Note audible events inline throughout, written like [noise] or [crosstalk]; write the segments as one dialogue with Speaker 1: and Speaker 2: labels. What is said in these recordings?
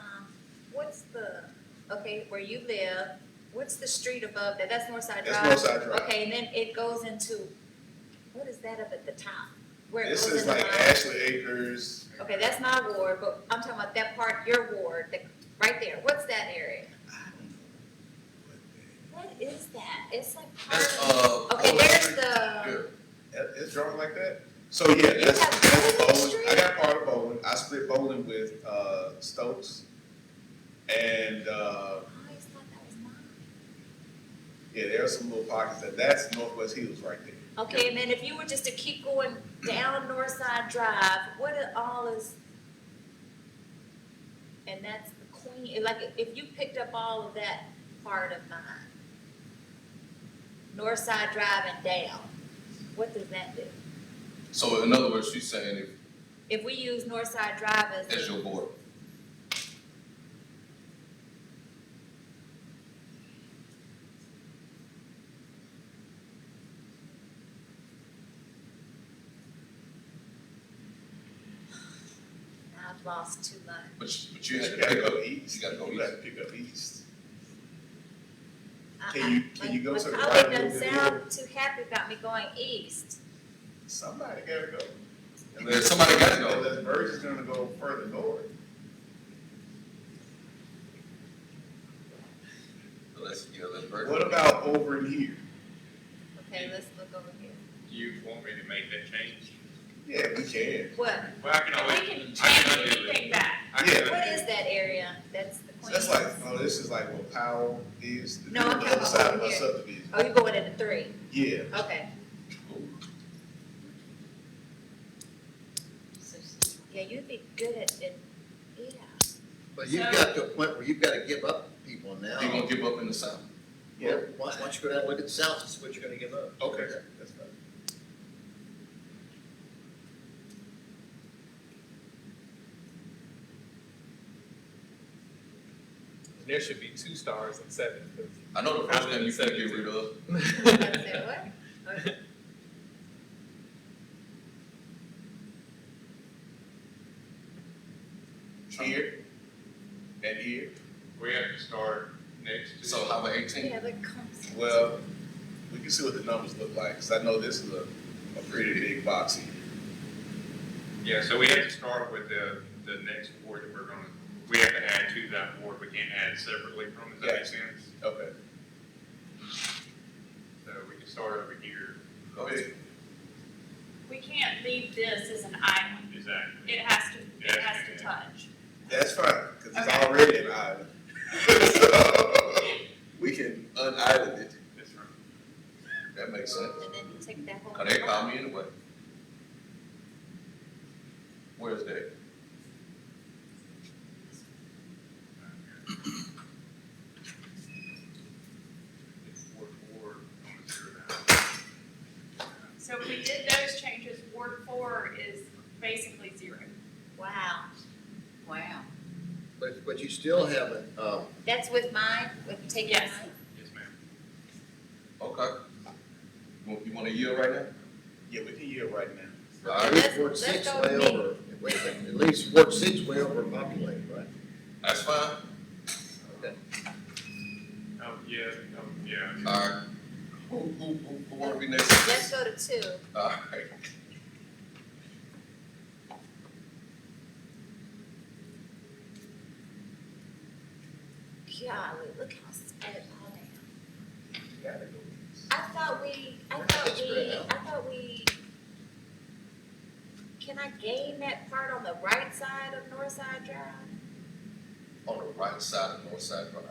Speaker 1: Um, what's the, okay, where you live, what's the street above that? That's Northside Drive?
Speaker 2: That's Northside Drive.
Speaker 1: Okay, and then it goes into, what is that up at the top? Where it
Speaker 2: This
Speaker 1: goes
Speaker 2: is
Speaker 1: into
Speaker 2: like
Speaker 1: my,
Speaker 2: Ashley Acres.
Speaker 1: okay, that's my ward, but I'm talking about that part, your ward, that, right there. What's that area? What is that? It's like
Speaker 3: That's,
Speaker 1: part of,
Speaker 3: uh.
Speaker 1: okay,
Speaker 3: Old
Speaker 1: there's
Speaker 3: Street.
Speaker 1: the,
Speaker 3: Yeah.
Speaker 2: It- It's drawn like that? So yeah,
Speaker 1: You
Speaker 2: that's,
Speaker 1: got
Speaker 2: that's
Speaker 1: Bowling
Speaker 2: bowling. I
Speaker 1: Street?
Speaker 2: got part of bowling. I split bowling with, uh, Stokes. And, uh,
Speaker 1: I always thought that was mine.
Speaker 2: yeah, there are some little pockets that, that's Northwest Hills right there.
Speaker 1: Okay, and then if you were just to keep going down Northside Drive, what it all is? And that's the Queen, like, if you picked up all of that part of mine, Northside Drive and down, what does that do?
Speaker 3: So in other words, she's saying if,
Speaker 1: If we use Northside Drive as,
Speaker 3: as your board,
Speaker 1: I've lost too much.
Speaker 3: but you, but
Speaker 2: You
Speaker 3: you had to
Speaker 2: gotta
Speaker 3: pick up.
Speaker 2: go east.
Speaker 3: You gotta go
Speaker 2: You
Speaker 3: east.
Speaker 2: gotta pick up east.
Speaker 1: I-
Speaker 2: Can you-
Speaker 1: I-
Speaker 2: can
Speaker 1: my-
Speaker 2: you go to the
Speaker 1: My
Speaker 2: right
Speaker 1: colleague
Speaker 2: a
Speaker 1: doesn't
Speaker 2: little
Speaker 1: sound
Speaker 2: bit
Speaker 1: too happy about me going east.
Speaker 2: Somebody gotta go.
Speaker 3: There's somebody gotta go.
Speaker 2: Unless Burge is gonna go further north.
Speaker 3: Unless, yeah, let's break.
Speaker 2: What about over in here?
Speaker 1: Okay, let's look over here.
Speaker 4: You want me to make that change?
Speaker 2: Yeah, we can.
Speaker 1: What?
Speaker 4: Well, I can
Speaker 1: We
Speaker 4: always.
Speaker 1: can
Speaker 4: I
Speaker 1: change
Speaker 4: undo it.
Speaker 1: anything back.
Speaker 4: I can
Speaker 2: Yeah.
Speaker 1: What
Speaker 4: undo
Speaker 1: is
Speaker 4: it.
Speaker 1: that area? That's the
Speaker 2: So
Speaker 1: Queens.
Speaker 2: that's like, oh, this is like what Powell is. the-
Speaker 1: No, I'm
Speaker 2: the
Speaker 1: talking
Speaker 2: other side of
Speaker 1: about
Speaker 2: our
Speaker 1: here.
Speaker 2: subdivision.
Speaker 1: Oh, you're going into three.
Speaker 2: Yeah.
Speaker 1: Okay. So, Yeah, you'd be good at it. Yeah.
Speaker 5: But you've got to a point where you've got to give up people now.
Speaker 3: They gonna give up in the south.
Speaker 2: Yeah.
Speaker 5: Once, once you go down, and look at the south, this is what you're gonna give up.
Speaker 2: Okay, that's fine.
Speaker 6: There should be two stars and seven. 'cause-
Speaker 3: I know the first thing you gotta get rid of,
Speaker 1: I said, what? Okay.
Speaker 2: Here and here.
Speaker 4: We have to start next to.
Speaker 3: so how about eighteen?
Speaker 1: Yeah, that comes.
Speaker 2: Well, we can see what the numbers look like, because I know this is a, a pretty big box here.
Speaker 4: Yeah, so we have to start with the, the next board that we're gonna, we have to add to that board. We can't add separately from, it. does that make sense?
Speaker 2: Okay.
Speaker 4: So we can start over here.
Speaker 2: Okay.
Speaker 7: We can't leave this as an island.
Speaker 4: Exactly.
Speaker 7: It has to, it has to touch.
Speaker 2: That's fine, because it's
Speaker 7: Okay.
Speaker 2: already an island. [laughs] So, We can unisland it.
Speaker 4: That's right.
Speaker 3: That makes sense.
Speaker 1: And then you take that whole.
Speaker 3: Cause they call me anyway. Where's that?
Speaker 4: It's Ward four, I'm gonna zero that.
Speaker 7: So if we did those changes, Ward four is basically zero.
Speaker 1: Wow.
Speaker 7: Wow.
Speaker 5: But, but you still haven't, um,
Speaker 1: That's with mine, with taking
Speaker 7: Yes.
Speaker 1: mine?
Speaker 4: Yes, ma'am.
Speaker 3: Okay. You want, you want a yield right now?
Speaker 2: Yeah, we can yield right now.
Speaker 3: All
Speaker 1: Okay,
Speaker 3: right,
Speaker 1: let's-
Speaker 5: Ward
Speaker 1: let's
Speaker 5: six
Speaker 1: go
Speaker 5: way
Speaker 1: with me.
Speaker 5: over, wait a minute, at least Ward six way over populated, right?
Speaker 3: that's fine.
Speaker 4: Oh, yeah, oh, yeah.
Speaker 3: All right. Who, who, who, who wanna be
Speaker 1: Let's
Speaker 3: next?
Speaker 1: go to two.
Speaker 3: All right.
Speaker 1: Golly, look how sped it all down.
Speaker 2: Gotta go.
Speaker 1: I thought we, I thought
Speaker 5: It's
Speaker 1: we,
Speaker 5: spread out.
Speaker 1: I thought we. Can I gain that part on the right side of Northside Drive?
Speaker 3: On the right side of North Side Drive.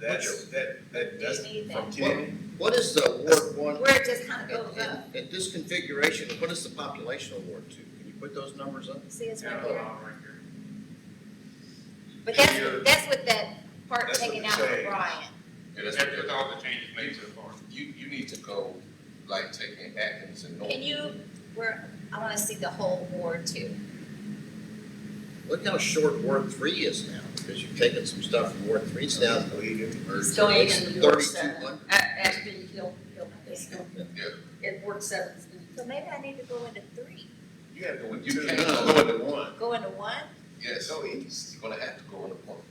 Speaker 2: That's, that, that, that's
Speaker 1: You need
Speaker 2: from
Speaker 1: that.
Speaker 2: Kennedy.
Speaker 5: What is the Ward one?
Speaker 1: Where it just kind of
Speaker 5: in-
Speaker 1: goes up.
Speaker 5: in- At this configuration, what is the population of Ward two? Can you put those numbers up?
Speaker 1: See, it's right
Speaker 4: Yeah,
Speaker 1: here.
Speaker 4: uh, right here.
Speaker 1: But that's, that's with that part
Speaker 2: That's
Speaker 1: taken
Speaker 2: what
Speaker 1: out
Speaker 2: they
Speaker 1: of
Speaker 2: say.
Speaker 1: Brian.
Speaker 3: Yeah, that's
Speaker 4: That's
Speaker 3: what
Speaker 4: with
Speaker 3: that,
Speaker 4: all the changes made so far.
Speaker 3: you, you need to go, like, taking Atkins and North.
Speaker 1: Can you, where, I want to see the whole ward too.
Speaker 5: Look how short Ward three is now, because you've taken some stuff from Ward three down to
Speaker 8: It's going in Ward
Speaker 5: thirty-two
Speaker 8: seven,
Speaker 5: hundred.
Speaker 8: A- Ashby, Hill, Hill, it's going
Speaker 3: Yeah.
Speaker 8: in Ward seven.
Speaker 1: So maybe I need to go into three.
Speaker 2: You gotta go
Speaker 3: You
Speaker 2: into,
Speaker 3: can't
Speaker 2: no,
Speaker 3: go.
Speaker 2: go into one.
Speaker 1: Go into one?
Speaker 3: Yes,
Speaker 2: Go east.
Speaker 3: you're gonna have to go on the point.